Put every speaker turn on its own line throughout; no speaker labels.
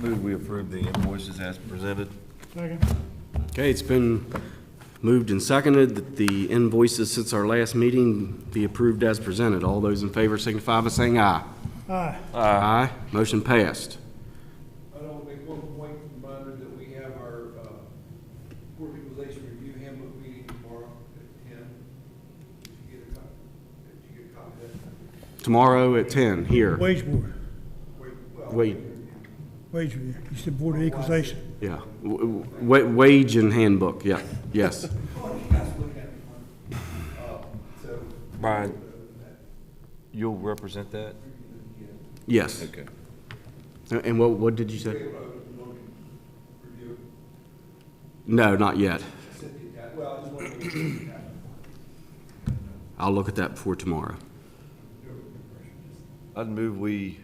we approve the invoices as presented.
Okay, it's been moved and seconded that the invoices since our last meeting be approved as presented. All those in favor signify by saying aye.
Aye.
Aye. Motion passed.
I don't make one point reminder that we have our uh, Board of Equalization Review Handbook meeting tomorrow at ten. Did you get a copy? Did you get a copy of that?
Tomorrow at 10 here.
Wage board,
Wait, well,
Wait,
wage review. You said board of equalization.
yeah. W- w- wa- Wage and handbook, yeah, yes.
oh, you guys look at it. Uh, So,
Brian, you'll represent that?
Yes.
Okay.
And and what, what did you say?
we'll open the loan review,
No, not yet.
send it out. Well, I just wanted to get that.
I'll look at that before tomorrow.
I'd move we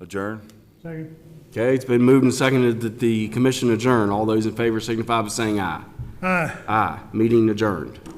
adjourn.
Second.
Okay, it's been moved and seconded that the commission adjourn. All those in favor signify by saying aye.
Aye.
Aye. Meeting adjourned.